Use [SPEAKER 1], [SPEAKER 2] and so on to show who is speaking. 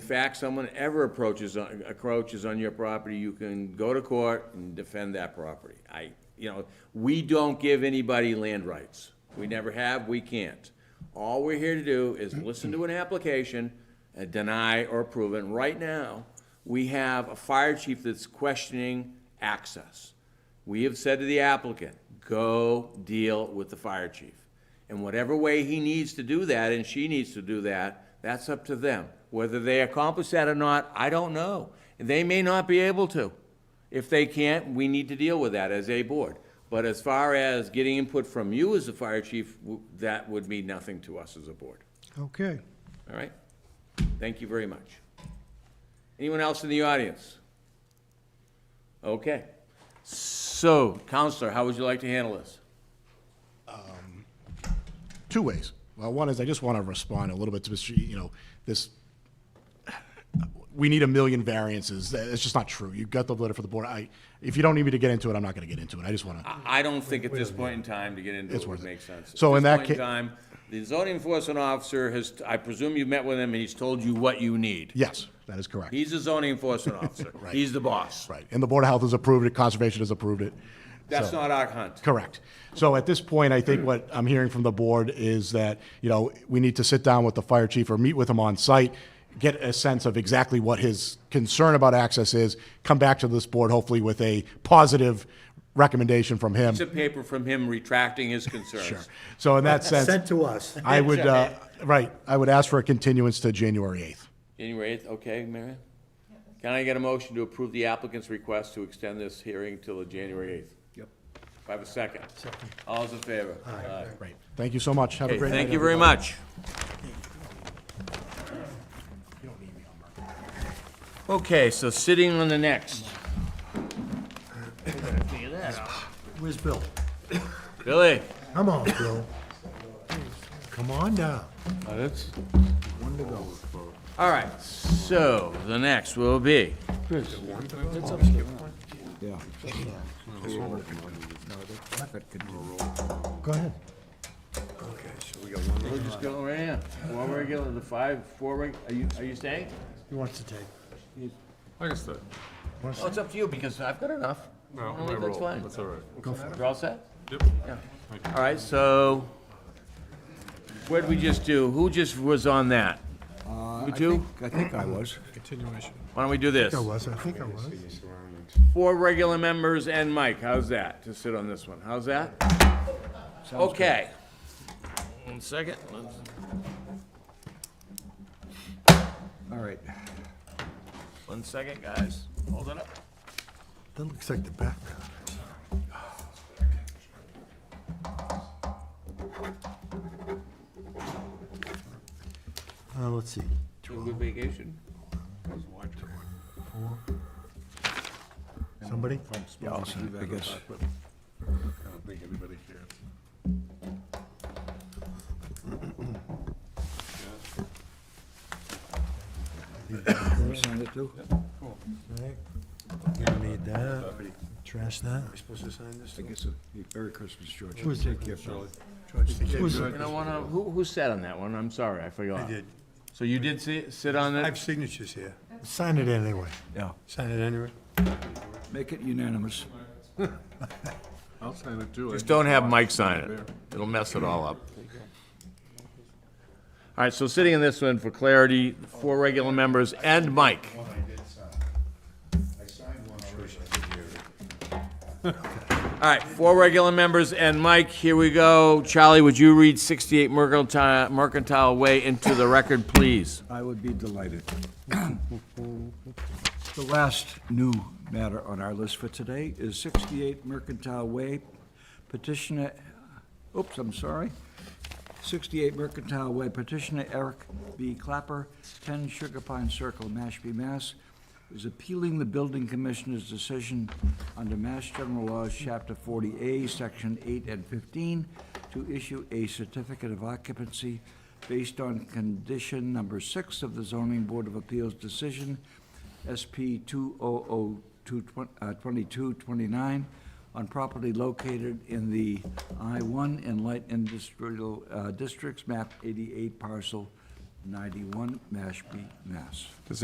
[SPEAKER 1] fact someone ever approaches, on- encroaches on your property, you can go to court and defend that property. I, you know, we don't give anybody land rights. We never have, we can't. All we're here to do is listen to an application and deny or approve it. And right now, we have a fire chief that's questioning access. We have said to the applicant, go deal with the fire chief. And whatever way he needs to do that, and she needs to do that, that's up to them. Whether they accomplish that or not, I don't know. They may not be able to. If they can't, we need to deal with that as a board. But as far as getting input from you as the fire chief, w- that would mean nothing to us as a board.
[SPEAKER 2] Okay.
[SPEAKER 1] All right? Thank you very much. Anyone else in the audience? Okay. So, Counselor, how would you like to handle this?
[SPEAKER 2] Two ways. Well, one is I just want to respond a little bit to this, you know, this, we need a million variances. It's just not true. You've got the letter for the board. I, if you don't need me to get into it, I'm not going to get into it. I just want to,
[SPEAKER 1] I I don't think at this point in time to get into
[SPEAKER 2] It's
[SPEAKER 1] it would
[SPEAKER 2] worth it.
[SPEAKER 1] make sense. At
[SPEAKER 2] So in
[SPEAKER 1] this
[SPEAKER 2] that
[SPEAKER 1] point in
[SPEAKER 2] ca-
[SPEAKER 1] time, the zoning enforcement officer has, I presume you met with him and he's told you what you need.
[SPEAKER 2] yes, that is correct.
[SPEAKER 1] He's the zoning enforcement officer. He's the boss.
[SPEAKER 2] Right. And the Board of Health has approved it, Conservation has approved it.
[SPEAKER 1] That's
[SPEAKER 2] So-
[SPEAKER 1] not our hunt.
[SPEAKER 2] Correct. So at this point, I think what I'm hearing from the board is that, you know, we need to sit down with the fire chief or meet with him on site, get a sense of exactly what his concern about access is, come back to this board hopefully with a positive recommendation from him.
[SPEAKER 1] It's a paper from him retracting his concerns.
[SPEAKER 2] So in that sense,
[SPEAKER 3] sent to us.
[SPEAKER 2] I would, uh, right, I would ask for a continuance to January 8th.
[SPEAKER 1] Anyway, it's okay, Mary? Can I get a motion to approve the applicant's request to extend this hearing till the January eighth?
[SPEAKER 3] Yep.
[SPEAKER 1] If I have a second? Second. All's in favor? Aye.
[SPEAKER 2] Great. Thank you so much. Have a
[SPEAKER 1] Okay,
[SPEAKER 2] great night.
[SPEAKER 1] thank you very much. Okay, so sitting on the next.
[SPEAKER 3] Where's Bill?
[SPEAKER 1] Billy?
[SPEAKER 3] Come on, Bill. Come on down.
[SPEAKER 1] All right, so the next will be,
[SPEAKER 3] Go ahead.
[SPEAKER 1] we're just going right now. Four regular, the five, four reg, are you, are you staying?
[SPEAKER 3] He wants to take.
[SPEAKER 4] I can stay.
[SPEAKER 1] Oh, it's up to you, because I've got enough.
[SPEAKER 4] No,
[SPEAKER 1] No,
[SPEAKER 4] I
[SPEAKER 1] that's
[SPEAKER 4] roll.
[SPEAKER 1] fine.
[SPEAKER 4] That's all right.
[SPEAKER 1] You're all set?
[SPEAKER 4] Yep.
[SPEAKER 1] Yeah. All right, so what'd we just do? Who just was on that? You two?
[SPEAKER 5] I think I was.
[SPEAKER 4] Continuation.
[SPEAKER 1] Why don't we do this?
[SPEAKER 3] I was, I think I was.
[SPEAKER 1] Four regular members and Mike, how's that, to sit on this one? How's that? Okay. One second. Let's-
[SPEAKER 5] All right.
[SPEAKER 1] One second, guys. Hold it up.
[SPEAKER 3] That looks like the background. Uh, let's see.
[SPEAKER 1] Took a good vacation?
[SPEAKER 3] Somebody?
[SPEAKER 5] Yeah, I'll sign it, I guess.
[SPEAKER 4] I don't think anybody cares.
[SPEAKER 5] You signed it too?
[SPEAKER 3] Right. You need that. Trash that.
[SPEAKER 5] Supposed to sign this? I guess, so. uh, Merry Christmas, George.
[SPEAKER 3] Who's it?
[SPEAKER 5] Take care, Charlie.
[SPEAKER 3] Who's
[SPEAKER 1] You know, one of, who, who sat on that one? I'm sorry, I forgot. I did. So you did sit, sit on
[SPEAKER 6] I have
[SPEAKER 1] it?
[SPEAKER 6] signatures here.
[SPEAKER 3] Sign it anyway.
[SPEAKER 5] Yeah,
[SPEAKER 6] Sign it anyway.
[SPEAKER 5] make it unanimous.
[SPEAKER 4] I'll sign it too. I
[SPEAKER 1] Just don't have Mike sign it. It'll mess it all up. All right, so sitting in this one, for clarity, four regular members and Mike. All right, four regular members and Mike, here we go. Charlie, would you read 68 Mercantile Mercantile Way into the record, please?
[SPEAKER 5] I would be delighted. The last new matter on our list for today is 68 Mercantile Way petitioner, oops, I'm sorry, 68 Mercantile Way petitioner Eric B. Clapper, 10 Sugar Pine Circle, Mashpee, Mass., is appealing the building commissioner's decision under Mass General Laws, Chapter 40A, Section 8 and 15, to issue a certificate of occupancy based on condition number six of the Zoning Board of Appeals decision, SP 200229, uh, on property located in the I-1 and Light Industrial uh, Districts, map 88, parcel 91, Mashpee, Mass.